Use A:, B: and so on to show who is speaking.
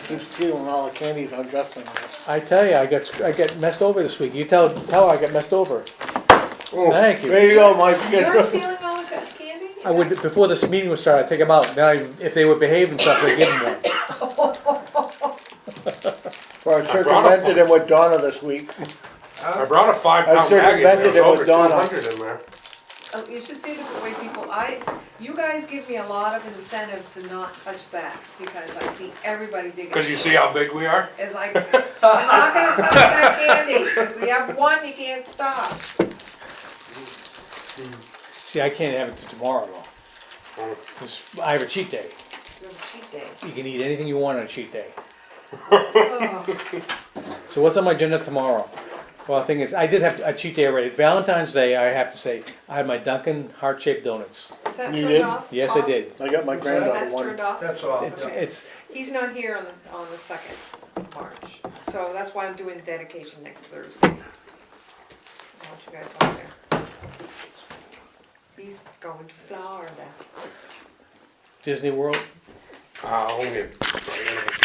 A: keeps stealing all the candies on Justin.
B: I tell you, I got, sc- I got messed over this week. You tell, tell her I got messed over. Thank you.
A: There you go, Mike.
C: You're stealing all the ca- candy?
B: I would, before this meeting was started, I'd take them out. Then I, if they would behave themselves, I'd give them one.
A: Well, I circumvented him with Donna this week.
D: I brought a five
A: I
D: pound bag in there,
A: circumvented
D: it
A: it
D: was over
A: with
D: two
A: Donna.
D: hundred in there.
C: Oh, you should see the way people, I, you guys give me a lot of incentive to not touch that, because I see everybody digging.
D: Cause you see how big we are?
C: It's like, I'm not gonna touch that candy, because we have one, you can't stop.
B: See, I can't have it till tomorrow though.
D: Oh.
B: 'Cause I have a cheat day.
C: It's a cheat day.
B: You can eat anything you want on a cheat day.
C: Oh,
B: So what's on my agenda tomorrow? Well, the thing is, I did have a cheat day already. Valentine's Day, I have to say, I had my Dunkin' heart-shaped donuts.
C: Is that
A: You
C: turned
A: did?
C: off?
B: Yes, I
C: Off?
B: did.
A: I got my granddaughter
C: That's
A: one.
C: turned off?
E: That's all.
B: It's, it's,
C: He's not here on the, on the second of March, so that's why I'm doing dedication next Thursday. I want you guys all there. He's going to Florida.
B: Disney World.
D: Uh, only